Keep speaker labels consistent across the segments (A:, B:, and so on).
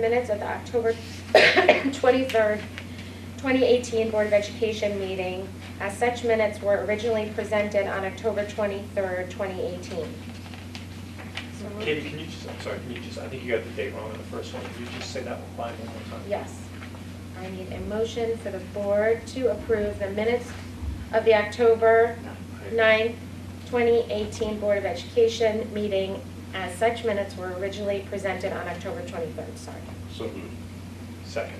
A: minutes of the October 23rd, 2018 Board of Education meeting, as such minutes were originally presented on October 23rd, 2018. So moved.
B: Katie, can you just, I'm sorry, can you just, I think you got the date wrong on the first one. Can you just say that one line one more time?
A: Yes. I need a motion for the board to approve the minutes of the October 9, 2018 Board of Education meeting, as such minutes were originally presented on October 23rd, sorry.
C: So moved.
B: Second.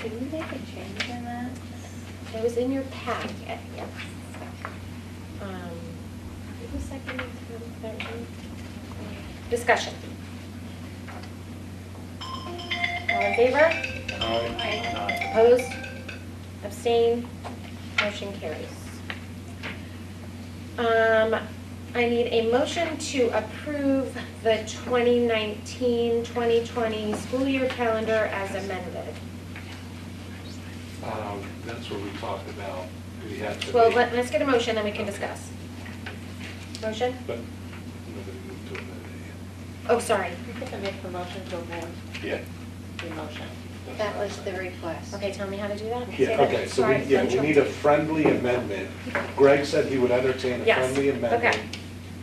D: Did we make a change in that?
A: It was in your packet, yes. Um, Who seconded the motion? Discussion. All in favor?
B: Aye.
A: Opposed? Abstain. Motion carries. Um, I need a motion to approve the 2019-2020 school year calendar as amended.
C: Um, That's what we talked about. We had to.
A: Well,
C: make-
A: let- let's get a motion, then we can discuss. Motion?
C: But nobody moved to amend it
A: Oh, sorry.
D: I think I make the motion to amend
C: yet.
D: the motion.
C: Yeah.
E: That was the request.
A: Okay, tell me how to do that? Say
C: Yeah,
A: that.
C: okay, so we,
A: Sorry,
C: yeah,
A: I'm
C: we need a friendly amendment. Greg said he would entertain a
A: Yes,
C: friendly amendment
A: okay.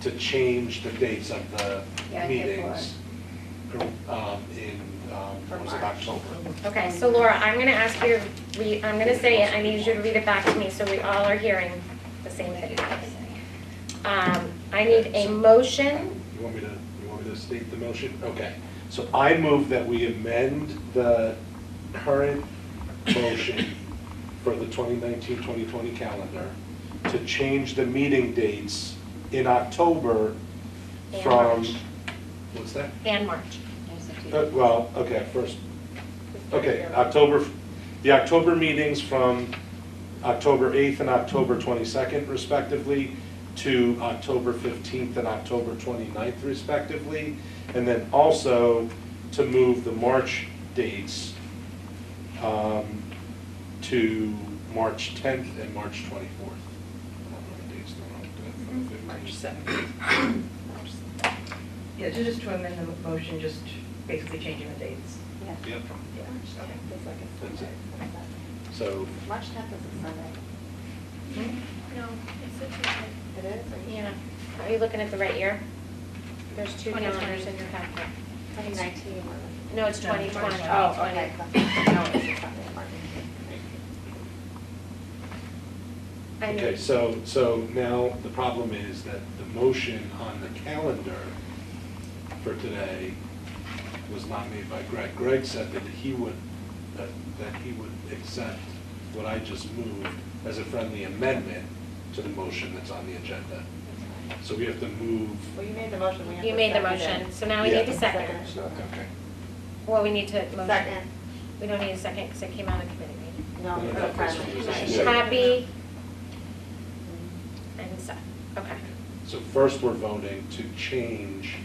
C: to change the dates of the
E: Yeah, I think
C: meetings um, in, um,
E: For
C: what was it,
E: March.
C: October?
A: Okay, so Laura, I'm gonna ask you to read, I'm gonna say it, I need you to read it back to me, so we all are hearing the same thing. Um, I need a motion,
C: You want me to, you want me to state the motion? Okay. So I move that we amend the current motion for the 2019-2020 calendar to change the meeting dates in October
A: And
C: from,
A: March.
C: what's that?
A: and March.
E: There's a few.
C: Uh, Well, okay, first, okay, October, the October meetings from October 8th and October 22nd respectively to October 15th and October 29th respectively. And then also to move the March dates um, to March 10th and March 24th.
F: March 7th. Yeah, ju- just to amend the motion, just basically changing the dates.
E: Yeah.
C: Yep,
F: Yeah. Okay.
C: that's it. So
E: March 10th is a Sunday.
A: Hmm?
G: No, it's a Tuesday.
E: It is?
A: Yeah, are you looking at the right year? There's two calendars in your packet.
E: 2019 or?
A: No, it's
F: No, March
A: 2020.
F: Oh,
E: okay. No, it's a Sunday, March.
A: I
C: Okay,
A: need,
C: so, so now the problem is that the motion on the calendar for today was not made by Greg. Greg said that he would, that that he would accept what I just moved as a friendly amendment to the motion that's on the agenda. So we have to move.
D: Well, you made the motion, we have to second it.
A: you made the motion, so now we need
C: Yeah.
A: a second.
C: Okay.
A: Well, we need to motion.
D: Second.
A: We don't need a second, because it came out of committee meeting.
D: No,
C: No,
D: it's
C: no,
D: a
C: that's what it
D: friendly.
C: is. Yeah.
A: Happy and set, okay.
C: So first, we're voting to change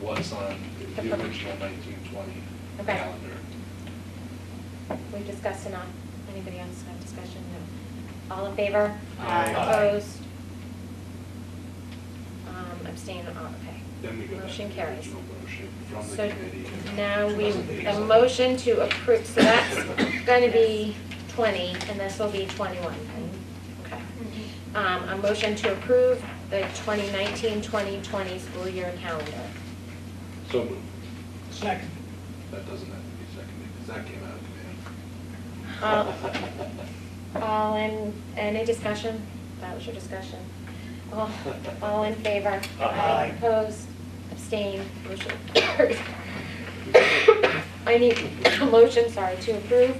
C: what's on the
A: The pro-
C: original 1920
A: Okay.
C: calendar.
A: We discussed enough. Anybody else have discussion? No. All in favor?
C: Aye. Aye.
A: Opposed? Um, abstain, oh, okay.
C: Then we go back to
A: Motion
C: the
A: carries.
C: original motion from the
A: So
C: committee.
A: now we, the
C: Presentation.
A: motion to approve, so that's going to be 20, and this will be 21. Okay. Um, A motion to approve the 2019-2020 school year calendar.
C: So moved.
B: Second.
C: That doesn't have to be seconded, because that came out of
A: Uh,
C: committee.
A: All in, any discussion? That was your discussion. All, all in favor?
B: Aye.
A: Opposed, abstained, motion carries. I need a motion, sorry, to approve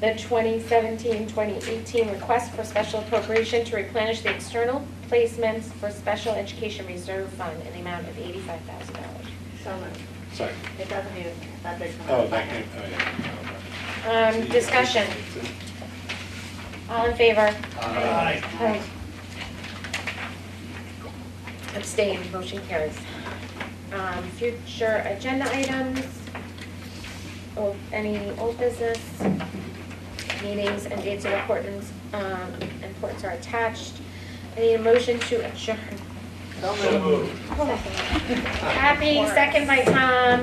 A: the 2017-2018 request for special appropriation to replenish the external placements for special education reserve fund in the amount of $85,000.
D: So moved.
C: Sorry.
D: It doesn't need, a- that did come out.
C: Oh, that came, oh, yeah.
A: Um, Discussion, all in favor?
C: Aye.
A: Aye. Abstained, motion carries. Um, Future agenda items, or any old business, meetings and dates of importance, um, importance are attached. I need a motion to adjourn.
D: So
B: So
D: moved.
B: moved.
A: Happy, second by Tom.